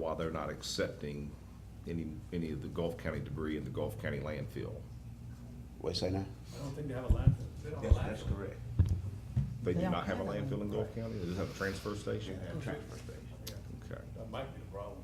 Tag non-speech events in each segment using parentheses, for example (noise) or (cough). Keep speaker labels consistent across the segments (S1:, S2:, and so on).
S1: law, they're not accepting any, any of the Gulf County debris in the Gulf County landfill.
S2: What you say now?
S3: I don't think they have a landfill. They don't have a landfill.
S2: correct.
S1: They do
S4: They don't
S1: not have a
S4: have a
S1: landfill in Gulf County, they just have a transfer station?
S2: They have a transfer station.
S1: Okay.
S3: That might be the problem.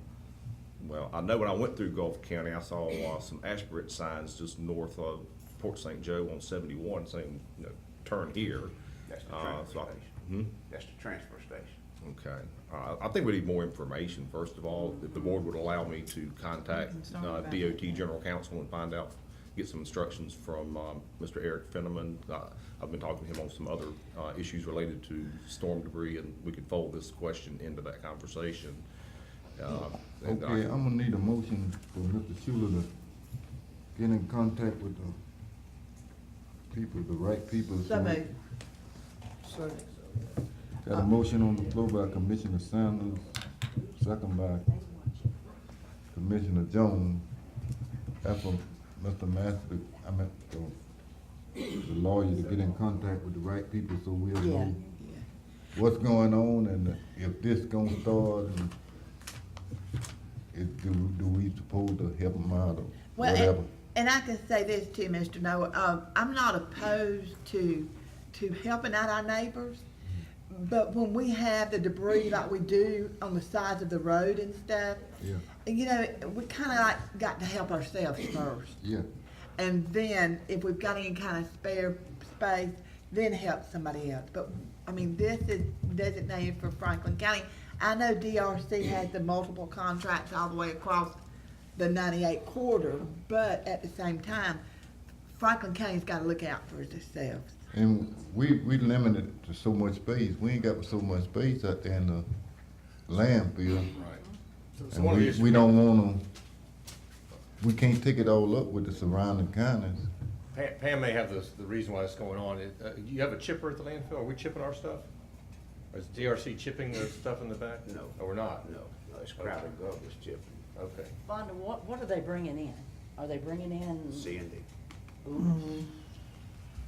S1: Well, I know when I went through Gulf County, I saw uh, some Ashbridge signs just north of Port St. Joe on seventy-one saying, you know, turn here.
S2: That's the
S1: Uh,
S2: transfer
S1: so I-
S2: station.
S1: Hmm?
S2: That's the transfer station.
S1: Okay, uh, I think we need more information, first of all, if the board would allow me to contact
S4: Mhm, sorry
S1: uh,
S4: about
S1: DOT
S4: that.
S1: General Counsel and find out, get some instructions from, um, Mr. Eric Fenneman. Uh, I've been talking to him on some other, uh, issues related to storm debris, and we could fold this question into that conversation. Uh, and I
S5: Okay,
S1: can-
S5: I'm gonna need a motion for Mr. Schuler to get in contact with the people, the right people.
S4: So moved.
S5: Got a motion on the floor by Commissioner Sanders, second by Commissioner Jones. After Mr. Master, I meant, uh, the lawyer to get in contact with the right people so we'll
S4: Yeah,
S5: know what's going on and if this gonna start and is, do, do we supposed to help them out or
S4: well,
S5: whatever?
S4: and, and I can say this too, Mr. Noah, um, I'm not opposed to, to helping out our neighbors,
S5: Mm-hmm.
S4: but when we have the debris like we do on the sides of the road and stuff,
S5: Yeah,
S4: you know, we kinda like got to help ourselves first.
S5: yeah,
S4: And then, if we've got any kind of spare space, then help somebody else. But, I mean, this is designated for Franklin County. I know DRC has the multiple contracts all the way across the ninety-eight corridor, but at the same time, Franklin County's gotta look out for themselves.
S5: and we, we limited to so much space, we ain't got so much space out there in the landfill.
S1: Right.
S5: And we, we don't wanna, we can't take it all up with the surrounding counties.
S6: Pam, Pam may have the, the reason why it's going on. It, uh, you have a chipper at the landfill? Are we chipping our stuff? Or is DRC chipping the stuff in the back?
S2: No.
S6: Oh, we're not?
S2: No, no, it's crowded garbage, Chip,
S6: Okay.
S7: Vonda, what, what are they bringing in? Are they bringing in?
S1: Mm-hmm.
S2: Sandy.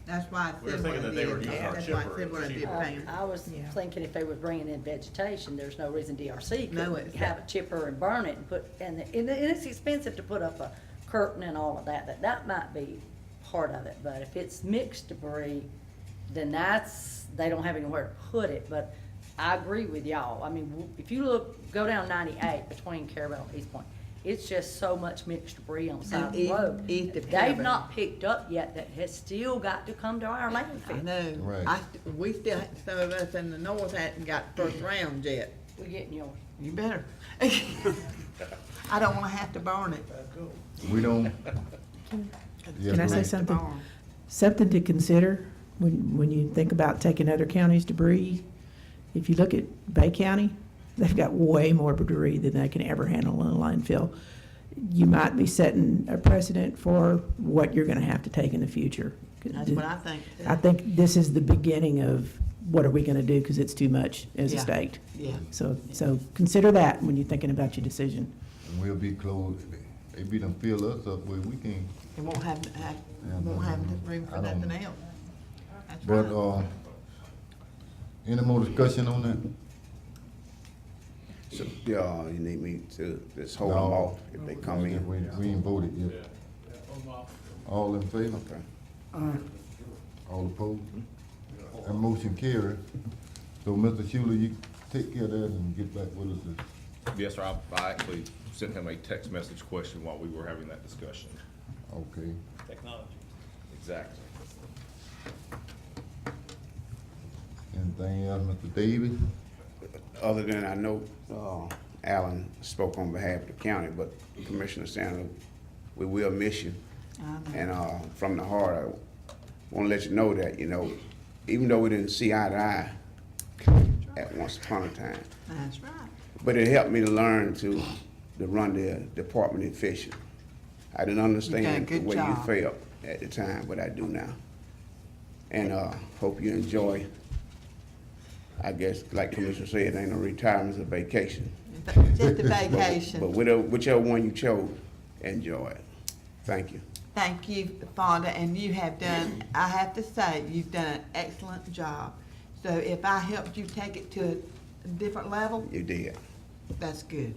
S4: That's why I
S6: We were
S4: said what
S6: thinking
S4: I
S6: that they were
S4: did.
S6: using our
S4: That's why I
S6: chipper.
S4: said what I did,
S7: I-
S4: Pam.
S7: Uh, I was
S4: Yeah.
S7: thinking if they was bringing in vegetation, there's no reason DRC
S4: No,
S7: could
S4: it's-
S7: have a chipper and burn it and put, and, it- and it's expensive to put up a curtain and all of that, that, that might be part of it, but if it's mixed debris, then that's, they don't have anywhere to put it, but I agree with y'all, I mean, w- if you look, go down ninety-eight between Carabel and East Point, it's just so much mixed debris on the side of the
S4: east-
S7: road.
S4: east of
S7: They've
S4: Carabel.
S7: not picked up yet, that has still got to come to our landfill.
S4: I know,
S5: Right.
S4: I, st- we still, some of us in the north hadn't got first round yet.
S7: We're getting yours.
S4: You better. (laughs) I don't wanna have to burn it.
S5: We don't. Yeah,
S8: Can I say
S5: right.
S8: something? Something to consider when, when you think about taking other counties' debris. If you look at Bay County, they've got way more debris than they can ever handle in a landfill. You might be setting a precedent for what you're gonna have to take in the future.
S4: That's what I think. too.
S8: I think this is the beginning of what are we gonna do, because it's too much as a
S4: Yeah.
S8: state.
S4: Yeah.
S8: So, so consider that when you're thinking about your decision.
S5: And we'll be closed, they be done fill us up where we can,
S4: It won't have, have,
S5: Yeah,
S4: won't have
S5: no,
S4: room for
S5: I don't-
S4: nothing else. That's
S5: but,
S4: right.
S5: uh, any more discussion on that?
S2: So, yeah, you need me to, just hold them
S5: No.
S2: off if they come in?
S5: We, we ain't voted
S3: Yeah,
S5: yet.
S3: yeah, hold 'em off.
S5: All in favor?
S2: Okay.
S5: All opposed? That motion carried. So, Mr. Schuler, you take care of that and get back with us.
S1: Yes, sir, I, I actually sent him a text message question while we were having that discussion.
S5: Okay.
S3: Technology.
S1: Exactly.
S5: Anything else, Mr. Davis?
S2: Other than I know, uh, Alan spoke on behalf of the county, but Commissioner Sanders, we will miss you. And, uh, from the heart, I wanna let you know that, you know, even though we didn't see eye to eye at once upon a time,
S4: That's right.
S2: But it helped me to learn to, to run the department efficient. I didn't understand the
S4: good
S2: way you
S4: job.
S2: felt at the time, but I do now. And, uh, hope you enjoy, I guess, like Commissioner said, ain't no retirement, it's a vacation.
S4: In fact,
S5: (laughs)
S4: Just a
S2: But- But
S4: vacation.
S2: whichever, whichever one you chose, enjoy it. Thank you.
S4: Thank you, Fonda, and you have done, I have to say, you've done an excellent job. So if I helped you take it to a different level,
S2: You did.
S4: that's good.